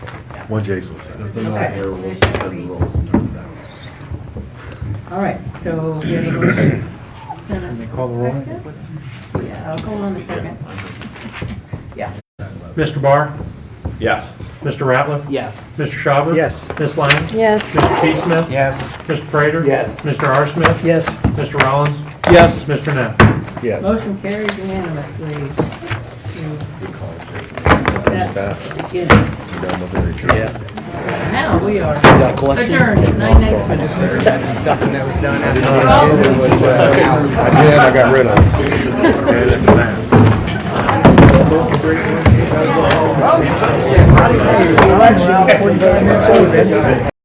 One Jason said. And if they're not Okay. here, we'll suspend the rules and turn it down. All right, so we have a motion. Can they call the roll? Yeah, I'll call on the second. Yeah. Mr. Barr? Yes. Mr. Ratliff? Yes. Mr. Schaubus? Yes. Ms. Lang? Yes. Mr. T. Smith? Yes. Mr. Prater? Yes. Mr. R. Smith? Yes. Mr. Rollins? Yes. Mr. Neff? Yes. Motion carries unanimously. We call it Jason. That's Back. the beginning. So down with the picture. Now we are Got a collection. adjourned at nine I just ninety-four. heard that something that was done after. I did, I got rid of it. Ran it to that.